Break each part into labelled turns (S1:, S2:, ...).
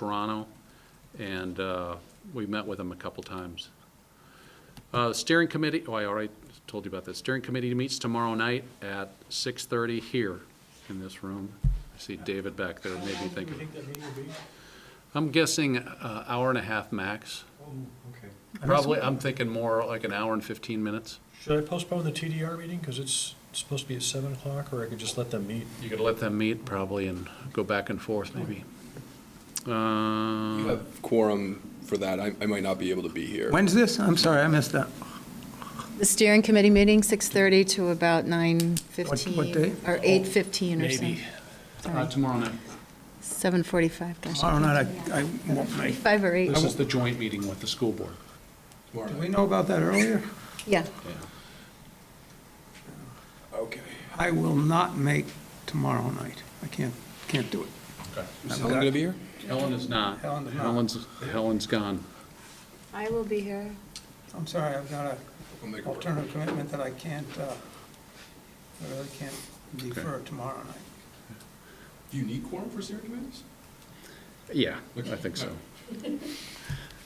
S1: Toronto, and uh, we met with them a couple times. Uh, Steering committee, oh, I already told you about this. Steering committee meets tomorrow night at 6:30 here in this room. I see David back there,
S2: How
S1: maybe
S2: long do you
S1: thinking.
S2: think that meeting will be?
S1: I'm guessing uh, hour and a half max.
S2: Oh, okay.
S1: Probably, I'm thinking more like an hour and 15 minutes.
S2: Should I postpone the TDR meeting, because it's supposed to be at seven o'clock, or I could just let them meet?
S1: You could let them meet probably and go back and forth maybe.
S3: You
S1: Uh,
S3: have quorum for that. I, I might not be able to be here.
S4: When's this? I'm sorry, I missed that.
S5: The steering committee meeting, 6:30 to about
S4: What-
S5: 9:15.
S4: what day?
S5: Or 8:15 or something.
S1: uh, Tomorrow night.
S5: 7:45, gosh.
S4: Tomorrow night, I I won't make.
S5: Five or eight,
S1: This is the joint meeting with the school board.
S3: Tomorrow
S4: Did we
S3: night.
S4: know about that earlier?
S5: yeah.
S3: Okay.
S4: I will not make tomorrow night. I can't, can't do it.
S3: Is Helen gonna be here?
S1: Helen is not.
S4: Helen is not.
S1: Helen's, Helen's gone.
S5: I will be here.
S4: I'm sorry, I've got
S3: I'll
S4: an
S3: make it work.
S4: alternative commitment that I can't, uh, I really can't defer tomorrow night.
S3: Do you need quorum for steering committees?
S1: Yeah, I think so.
S3: I'll be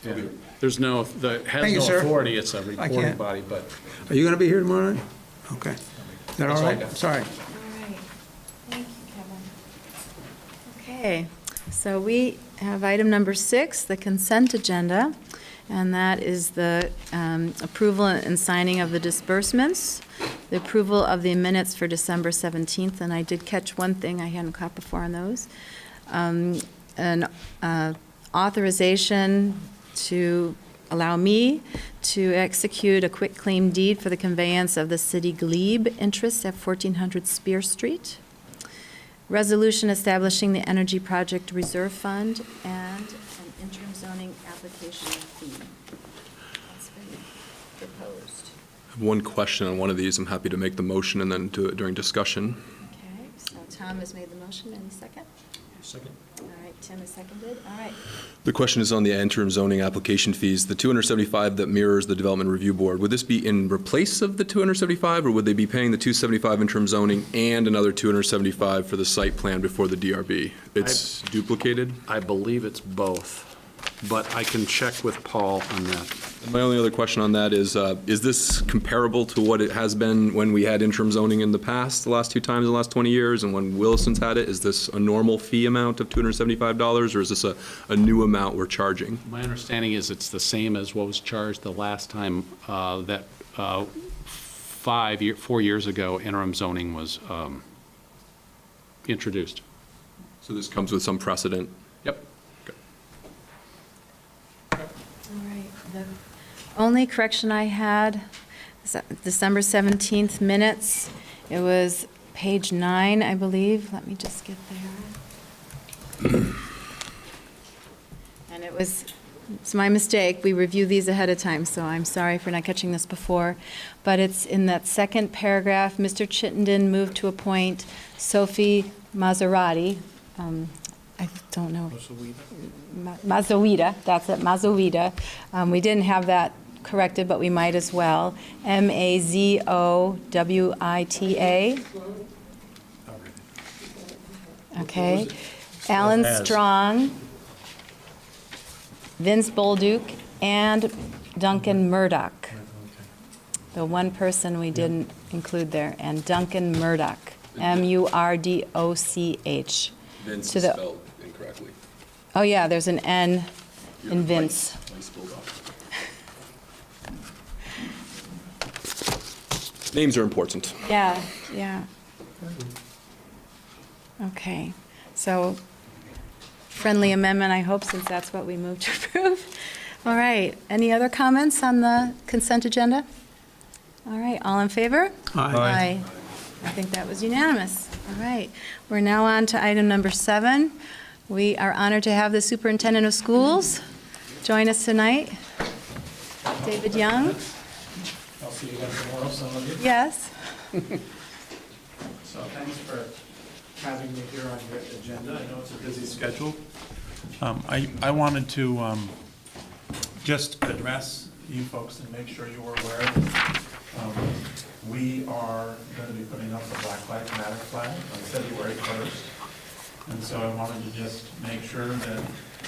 S1: Yeah.
S3: here.
S1: There's no, the, has
S4: Thank you,
S1: no
S4: sir.
S1: authority, it's a reporting
S4: can't.
S1: body, but
S4: Are you going to be here tomorrow night? Okay. Is that all
S3: all I
S4: right?
S3: got.
S4: Sorry.
S6: All right, thank you, Kevin.
S5: Okay, so we have item number six, the consent agenda, and that is the um, approval and signing of the disbursements, the approval of the minutes for December 17th, and I did catch one thing I hadn't caught before on those. Um, An uh, authorization to allow me to execute a quitclaim deed for the conveyance of the city glebe interest at 1400 Spear Street. Resolution establishing the Energy Project Reserve Fund and an interim zoning application fee. That's been proposed.
S3: I have one question on one of these. I'm happy to make the motion and then do it during discussion.
S5: Okay, so Tom has made the motion, any second?
S2: Second.
S5: All right, Tim has seconded, all right.
S3: The question is on the interim zoning application fees, the 275 that mirrors the Development Review Board. Would this be in replace of the 275, or would they be paying the 275 interim zoning and another 275 for the site plan before the DRB? It's duplicated?
S1: I believe it's both. But I can check with Paul on that.
S3: My only other question on that is, uh, is this comparable to what it has been when we had interim zoning in the past, the last two times in the last 20 years, and when Williston's had it? Is this a normal fee amount of $275, or is this a, a new amount we're charging?
S1: My understanding is it's the same as what was charged the last time uh, that uh, five, year- four years ago interim zoning was um, introduced.
S3: So this comes with some precedent.
S1: Yep.
S5: All right. The Only correction I had, is that December 17th minutes, it was page nine, I believe. Let me just get there. And it was, it's my mistake, we review these ahead of time, so I'm sorry for not catching this before. But it's in that second paragraph, Mr. Chittenden moved to appoint Sophie Maserati. Um, I don't know. Ma- Mazoeta, that's it, Mazoeta. Um, We didn't have that corrected, but we might as well. M-A-Z-O-W-I-T-A. Okay. Alan Strong, Vince Bolduc, and Duncan Murdoch. The one person we didn't include there, and Duncan Murdoch, M-U-R-D-O-C-H.
S3: Vince
S5: To
S3: is
S5: the-
S3: spelled incorrectly.
S5: Oh, yeah, there's an N in Vince.
S3: I spelled off. Names are important.
S5: Yeah, yeah. Okay, so friendly amendment, I hope, since that's what we moved to approve. All right, any other comments on the consent agenda? All right, all in favor? Aye. I think that was unanimous. All right, we're now on to item number seven. We are honored to have the superintendent of schools join us tonight. David Young,
S7: I'll see you guys tomorrow, some of you.
S5: yes?
S7: So thanks for having me here on your agenda. I know it's a busy schedule. Um, I, I wanted to um, just address you folks and make sure you were aware that um, we are going to be putting up the Black Lives Matter flag on February 1st. And so I wanted to just make sure that